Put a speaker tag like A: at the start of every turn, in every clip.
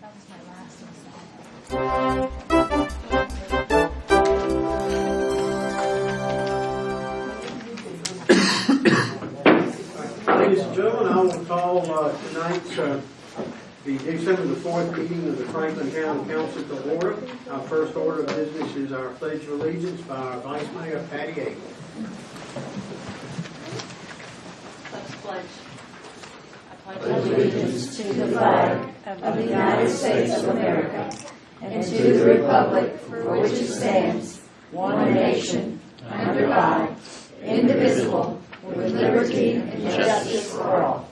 A: That was my last installment.
B: Ladies and gentlemen, I will call uh, tonight's, uh, the December the 4th meeting of the Franklin County Council to order. Our first order of business is our pledge of allegiance by our Vice Mayor Patty Aiken.
A: Let's pledge. I pledge
C: allegiance to the flag of the United States of America and to the republic for which it stands, one nation, under God, indivisible, with liberty and justice for all.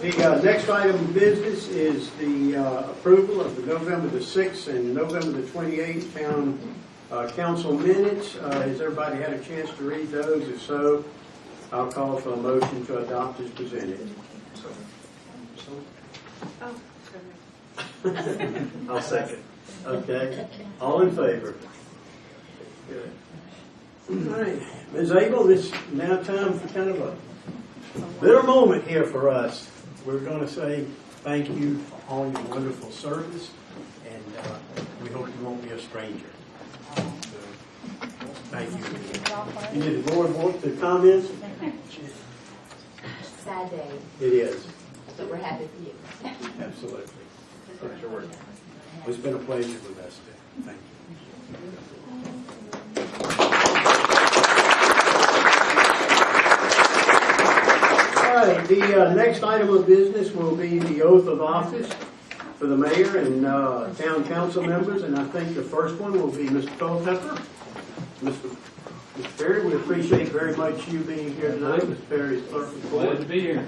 B: The uh, next item of business is the uh, approval of the November the 6th and November the 28th town uh, council minutes. Uh, Has everybody had a chance to read those? If so, I'll call for a motion to adopt as presented. I'll second. Okay, all in favor? Good. All right, Ms. Abel, it's now time for kind of a bitter moment here for us. We're going to say thank you for all your wonderful service, and uh, we hope you won't be a stranger. So, Thank you. You did the board want to comment?
D: sad day,
B: It is,
D: but we're happy for you.
B: absolutely. It's been a pleasure with us today. Thank you. All right, the uh, next item of business will be the oath of office for the mayor and uh, town council members, and I think the first one will be Mr. Culpepper. Mr. Mr. Perry, we appreciate very much you being here tonight. Mr. Perry is clerk of the
E: Glad to
B: board.
E: be here.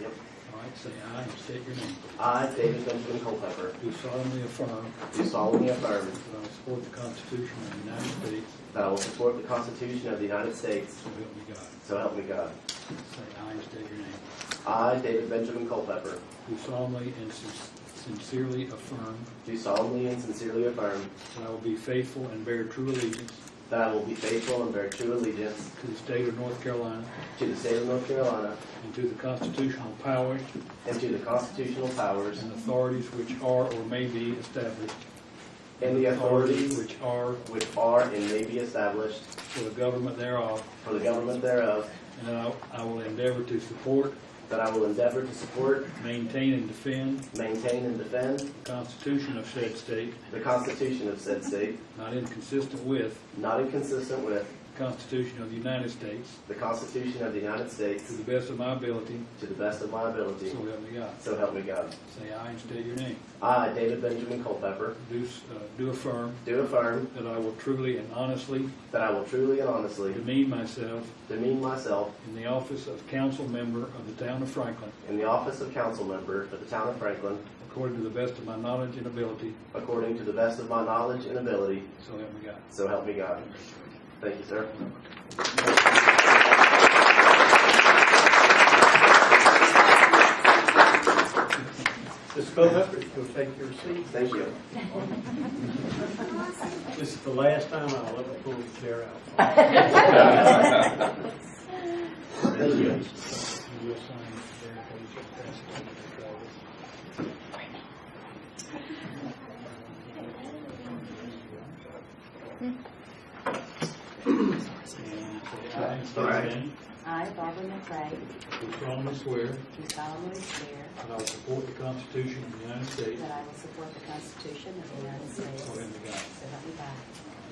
F: Yep.
E: All right, say aye and state your name.
F: I, David Benjamin Culpepper,
E: Do solemnly affirm
F: do solemnly affirm
E: that I will support the Constitution of the United States,
F: that I will support the Constitution of the United States,
E: so help me God.
F: so help me God.
E: Say aye and state your name.
F: I, David Benjamin Culpepper,
E: Do solemnly and sin- sincerely affirm
F: do solemnly and sincerely affirm
E: that I will be faithful and bear true allegiance
F: that I will be faithful and bear true allegiance
E: to the state of North Carolina
F: to the state of North Carolina
E: and to the constitutional powers
F: and to the constitutional powers
E: and authorities which are or may be established.
F: and the authorities
E: Which are
F: which are and may be established
E: for the government thereof,
F: for the government thereof,
E: and that I- I will endeavor to support,
F: that I will endeavor to support,
E: maintain, and defend
F: maintain, and defend
E: the Constitution of said state,
F: the Constitution of said state,
E: not inconsistent with
F: not inconsistent with
E: the Constitution of the United States,
F: the Constitution of the United
E: to
F: States,
E: the best of my ability,
F: to the best of my ability.
E: so help me God.
F: So help me God.
E: Say aye and state your name.
F: I, David Benjamin Culpepper,
E: Do s- uh, do affirm
F: do affirm
E: that I will truly and honestly
F: that I will truly and honestly
E: demean myself
F: demean myself
E: in the office of council member of the town of Franklin,
F: in the office of council member for the town of Franklin,
E: according to the best of my knowledge and ability,
F: according to the best of my knowledge and ability,
E: so help me God.
F: so help me God. Thank you, sir.
B: Mr. Culpepper, you'll take your seat.
F: Thank you.
B: This is the last time I'll ever pull the chair out.
F: Thank you.
E: You'll sign there, please, your passport. And say aye.
F: All right.
E: State your name.
D: I, Barbara McRae,
E: Do solemnly swear
D: do solemnly swear
E: that I will support the Constitution of the United States.
D: that I will support the Constitution of the United States.
E: So help me God.
D: So help me God.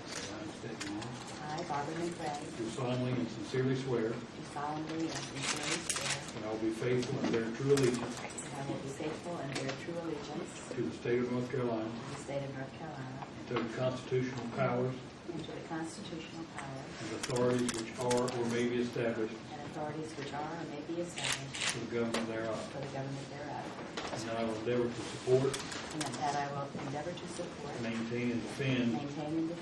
E: Say aye and state your name.
D: I, Barbara McRae,
E: Do solemnly and sincerely swear
D: do solemnly and sincerely swear
E: that I will be faithful and bear true allegiance
D: that I will be faithful and bear true allegiance
E: to the state of North Carolina
D: to the state of North Carolina
E: and to the constitutional powers
D: and to the constitutional powers
E: and authorities which are or may be established
D: and authorities which are or may be established
E: for the government thereof.
D: for the government thereof,
E: And that I will endeavor to support,
D: and that I will endeavor to support,
E: maintain, and defend
D: maintain, and defend